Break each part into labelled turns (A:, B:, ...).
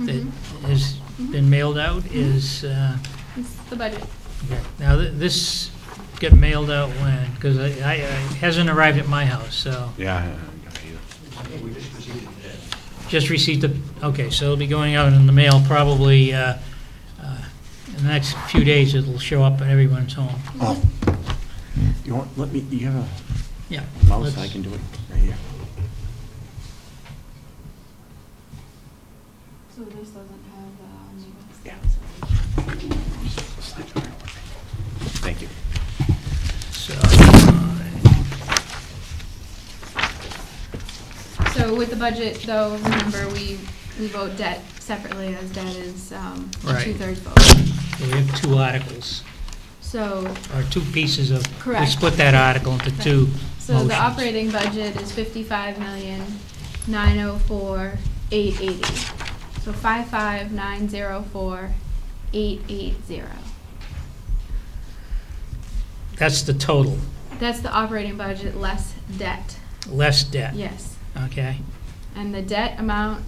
A: that
B: Mhm.
A: has
B: Mhm.
A: been mailed out is, uh,
B: It's the budget.
A: yeah. now, th- this get mailed out when? Because I, I- it hasn't arrived at my house, so,
C: Yeah. I got you.
A: just received the, okay, so it'll be going out in the mail probably, uh, uh, in the next few days, it'll show up at everyone's home.
C: Oh. You want, let me, you have
A: Yeah.
C: a mouse, I
A: let's-
C: can do it right here.
B: So this doesn't have, um,
C: Yeah. Thank you.
A: So, uh,
B: So with the budget, though, remember, we, we vote debt separately, as debt is, um, a
A: Right.
B: two-thirds vote.
A: so we have two articles,
B: So,
A: or two pieces of, we
B: Correct.
A: split that article into two
B: so
A: motions.
B: the operating budget is fifty-five million, nine oh four, eight eighty. So five-five, nine zero four, eight eight zero.
A: That's the total,
B: That's the operating budget less debt,
A: less debt.
B: yes.
A: Okay,
B: And the debt amount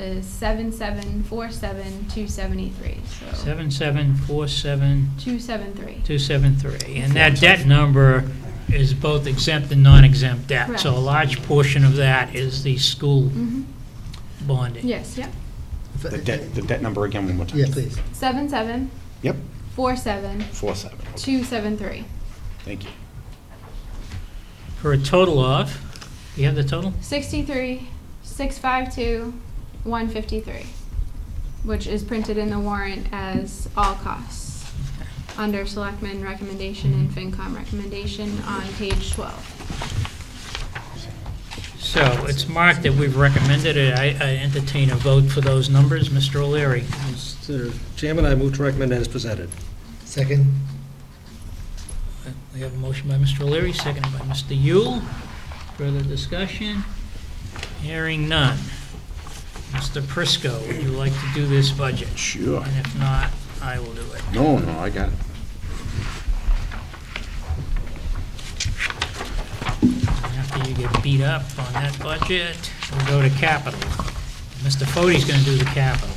B: is seven seven four seven two seventy-three, so,
A: seven seven four seven
B: two seven three.
A: two seven three, and that debt number is both exempt and non-exempt debt. So a
B: Correct.
A: large portion of that is the school
B: Mhm.
A: bonding.
B: Yes, yep,
C: The debt, the debt number again one more time.
D: Yeah, please.
B: seven seven
C: Yep,
B: four seven
C: four seven. Okay,
B: two seven three,
C: Thank you.
A: For a total of, you have the total?
B: sixty-three, six five two, one fifty-three, which is printed in the warrant as all costs, under selectmen recommendation and FinCom recommendation on page twelve.
A: So it's marked that we've recommended it. I I entertain a vote for those numbers. Mr. O'Leary,
E: Mr. Chairman, I move to recommend as presented.
D: Second?
A: we have a motion by Mr. O'Leary, seconded by Mr. Yule. Further discussion? Hearing none. Mr. Prisco, would you like to do this budget?
C: Sure.
A: And if not, I will do it.
C: No, no, I got it.
A: After you get beat up on that budget, we'll go to capital. Mr. Fode's gonna do the capital,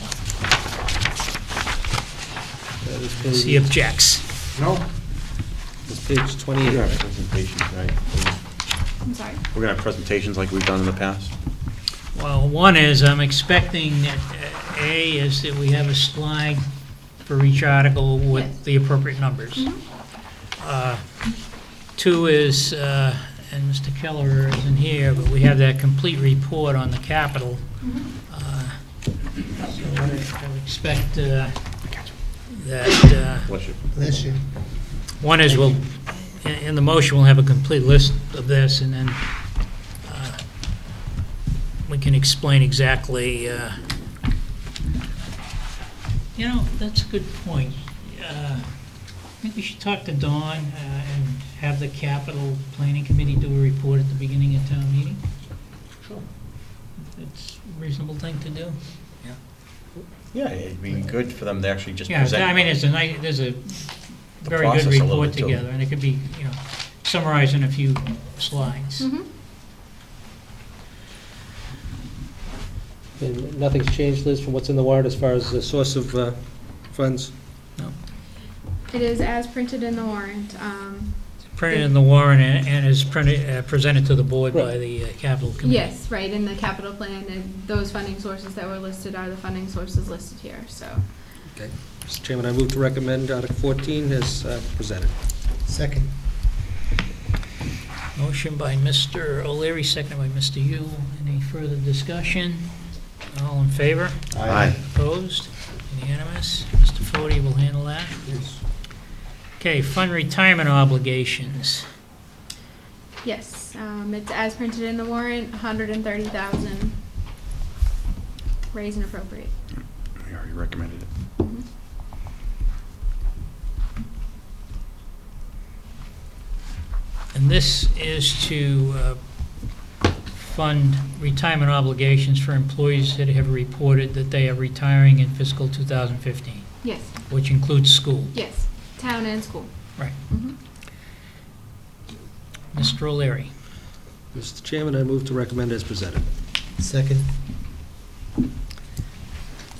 E: That is
A: if he
E: page-
A: objects.
C: No.
E: That's page
C: We're gonna
E: 28.
C: have presentations, right?
B: I'm sorry,
C: We're gonna have presentations like we've done in the past?
A: Well, one is, I'm expecting that, uh, A, is that we have a slide for each article
B: Yes.
A: with the appropriate numbers. Uh, Two is, uh, and Mr. Keller isn't here, but we have that complete report on the capital. Uh, So I I would expect uh, that uh,
C: Bless you.
D: Bless you.
A: One is we'll, in- in the motion, we'll have a complete list of this, and then uh, we can explain exactly, uh, you know, that's a good point. Uh, I think we should talk to Dawn uh, and have the capital planning committee do a report at the beginning of town meeting.
C: Sure.
A: It's a reasonable thing to do.
C: Yeah, it'd be good for them to actually just
A: Yeah,
C: present.
A: I mean, it's a nice, there's a
C: the
A: very good
C: process a little
A: report
C: bit, too.
A: together, and it could be, you know, summarized in a few slides.
B: mhm.
E: And nothing's changed, Liz, from what's in the warrant as far as the source of uh, funds?
B: It is as printed in the warrant, um,
A: Printed in the warrant and and is printed, uh, presented to the board by
E: Right.
A: the uh, capital committee.
B: Yes, right, in the capital plan, and those funding sources that were listed are the funding sources listed here, so.
E: Mr. Chairman, I move to recommend Article 14 as uh, presented.
D: Second?
A: Motion by Mr. O'Leary, seconded by Mr. Yule. Any further discussion? All in favor?
C: Aye.
A: Opposed? Unanimous? Mr. Fode will handle that.
D: Yes.
A: Okay, fund retirement obligations.
B: Yes, um, it's as printed in the warrant, hundred and thirty thousand, raise and appropriate.
C: We already recommended it.
A: And this is to uh, fund retirement obligations for employees that have reported that they are retiring in fiscal 2015,
B: Yes,
A: which includes school.
B: yes, town and school.
A: Right.
B: Mhm.
A: Mr. O'Leary.
E: Mr. Chairman, I move to recommend as presented.
D: Second?